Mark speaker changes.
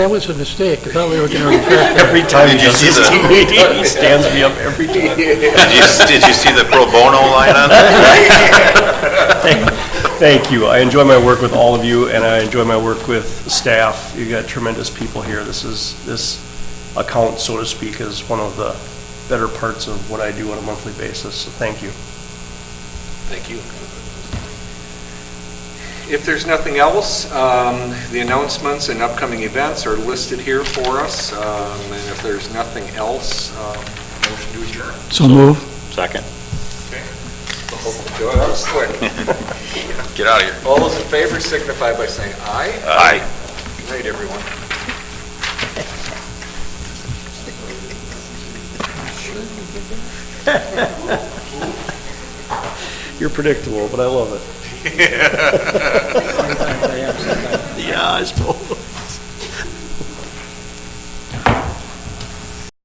Speaker 1: That was a mistake. I thought we were going to retract.
Speaker 2: Every time
Speaker 3: Did
Speaker 2: he
Speaker 3: you
Speaker 2: does
Speaker 3: see
Speaker 2: his
Speaker 3: the-
Speaker 2: TV, he stands me up every time.
Speaker 3: Did you, did you see the pro bono line on it?
Speaker 2: Thank you. I enjoy my work with all of you, and I enjoy my work with staff. You got tremendous people here. This is, this account, so to speak, is one of the better parts of what I do on a monthly basis, so thank you.
Speaker 4: Thank you. If there's nothing else, um, the announcements and upcoming events are listed here for us, um, and if there's nothing else, um, motion to adjourn.
Speaker 1: So move.
Speaker 3: Second.
Speaker 4: Joy, that was quick.
Speaker 3: Get out of here.
Speaker 4: All those in favor signify by saying aye.
Speaker 3: Aye.
Speaker 4: Good night, everyone.
Speaker 2: You're predictable, but I love it. Yeah, I suppose.